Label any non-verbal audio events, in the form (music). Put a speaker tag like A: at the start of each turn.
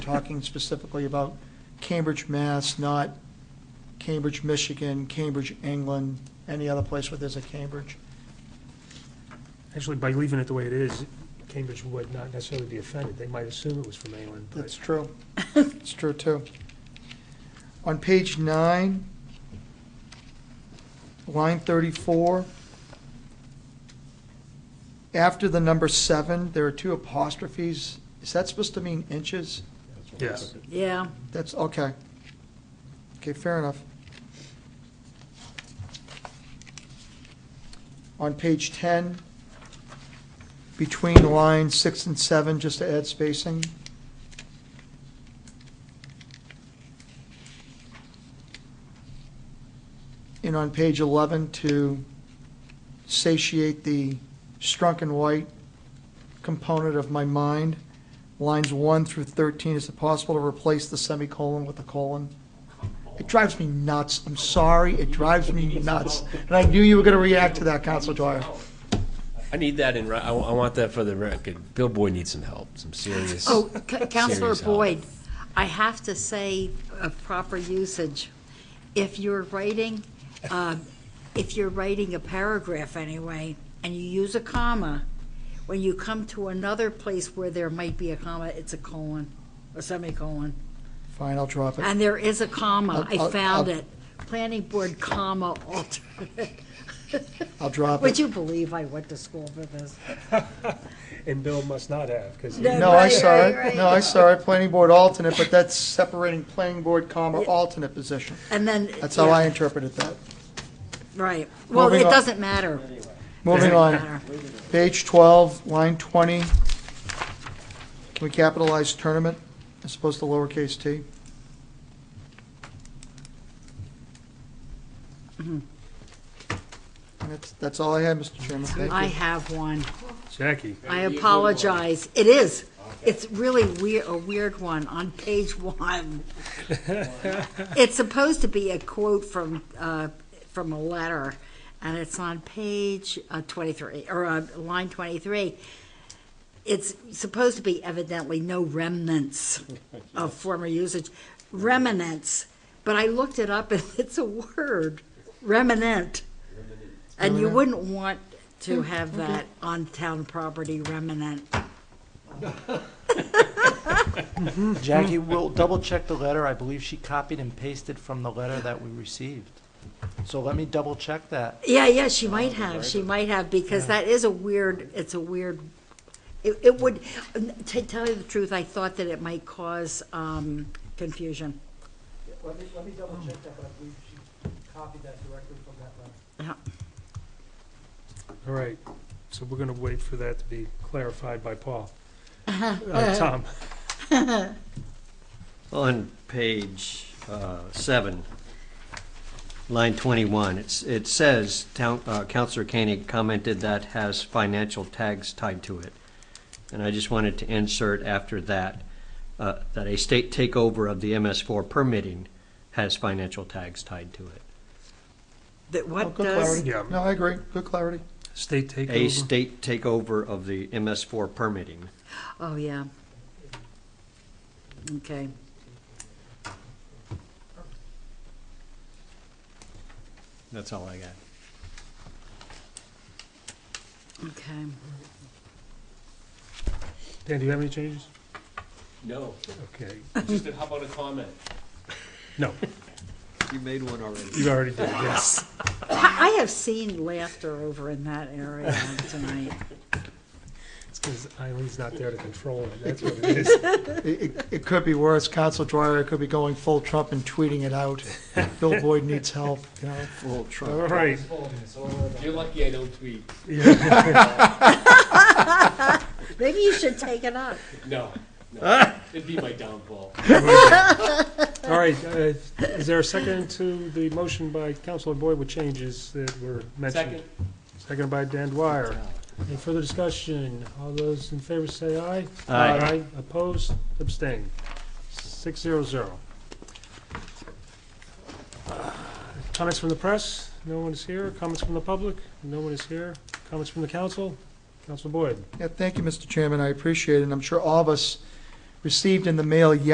A: talking specifically about Cambridge, Mass., not Cambridge, Michigan, Cambridge, England, any other place where there's a Cambridge.
B: Actually, by leaving it the way it is, Cambridge would not necessarily be offended. They might assume it was from England,
A: That's
B: but
A: true. It's true, too. On page nine, line 34, after the number seven, there are two apostrophes. Is that supposed to mean inches?
B: yes.
C: Yeah,
A: That's, okay. Okay, fair enough. On page 10, between lines six and seven, just to add spacing. And on page 11, to satiate the strunk and white component of my mind, lines 1 through 13, is it possible to replace the semicolon with a colon? It drives me nuts. I'm sorry, it drives me nuts. And I knew you were going to react to that, Counselor Dwyer.
D: I need that in, ri- I, wa- I want that for the record. Bill Boyd needs some help, some serious.
C: oh,
A: (laughs)
C: C- Counselor
D: Serious help.
C: Boyd, I have to say a proper usage. If you're writing, um, if you're writing a paragraph anyway, and you use a comma, when you come to another place where there might be a comma, it's a colon, a semicolon.
A: Fine, I'll drop it.
C: And there is a comma,
A: I'll-
C: I
A: I'll-
C: found
A: I'll-
C: it. Planning board comma alternate.
A: I'll drop
C: Would
A: it.
C: you believe I went to school for this?
B: And Bill must not have, because
C: No.
A: No, I
C: Right,
A: saw
C: right,
A: it.
C: right.
A: No, I saw it, planning board alternate, but that's separating planning board comma alternate position.
C: And then.
A: That's how I
C: yeah,
A: interpreted that.
C: Right. Well,
A: Moving
C: it
A: on.
C: doesn't matter.
A: Moving
C: Doesn't
A: on,
C: matter.
A: page 12, line 20. Can we capitalize tournament as opposed to lowercase t? And That's, that's all I had, Mr. Chairman. Thank
C: I
A: you.
C: have one.
B: Jackie,
C: I apologize. It is. It's really weird, a weird one on page
A: (laughs)
C: one. It's supposed to be a quote from, uh, from a letter, and it's on page uh, twenty-three, or uh, line twenty-three. It's supposed to be evidently no remnants of former usage, remnants, but I looked it up and (laughs) it's a word, remnant. And you wouldn't want
A: Oh,
C: to have that on town property remnant.
E: Jackie, we'll double check the letter. I believe she copied and pasted from the letter that we received. So let me double check that.
C: Yeah, yeah, she
A: Oh,
C: might have, she might have, because that is a weird, it's a weird, it, it would, to tell you the truth, I thought that it might cause, um, confusion.
F: Let me, let me double check that, but I believe she copied that directly from that letter.
B: all right. So we're going to wait for that to be clarified by Paul. Uh, Tom,
G: On page uh, seven, line 21, it's- it says, Town- uh, Counselor Koenig commented that has financial tags tied to it. And I just wanted to insert after that, uh, that a state takeover of the MS4 permitting has financial tags tied to it.
C: That
A: Oh,
C: what
A: Good
C: does,
A: clarity.
B: Yeah.
A: No, I agree. Good clarity.
B: state
G: A
B: takeover.
G: state takeover of the MS4 permitting.
C: oh, yeah. Okay,
G: That's all I got.
A: (coughs)
C: okay.
B: Dan, do you have any changes?
D: No,
B: Okay,
D: just how about a comment?
B: no,
G: You made one already.
B: you already did, yes.
C: I, I have seen laughter over in that area tonight.
B: It's because Eileen's not there to control it, that's what it is.
A: It, it- it could be worse. Council Dwyer could be going full Trump and tweeting it (laughs) out. Bill Boyd needs help, you know?
G: Full trunk.
B: All right.
D: You're lucky I don't tweet.
C: Maybe you should take it up.
D: No, no, it'd be my downfall.
B: All right, uh, is there a second to the motion by Counselor Boyd with changes that were mentioned?
D: Second,
B: Second by Dan Dwyer. Any further discussion? All those in favor say aye.
G: Aye.
B: Opposed, abstained. Six zero zero. Comments from the press? No one is here. Comments from the public? No one is here. Comments from the council? Counselor Boyd?
A: Yeah, thank you, Mr. Chairman. I appreciate it. And I'm sure all of us received in the mail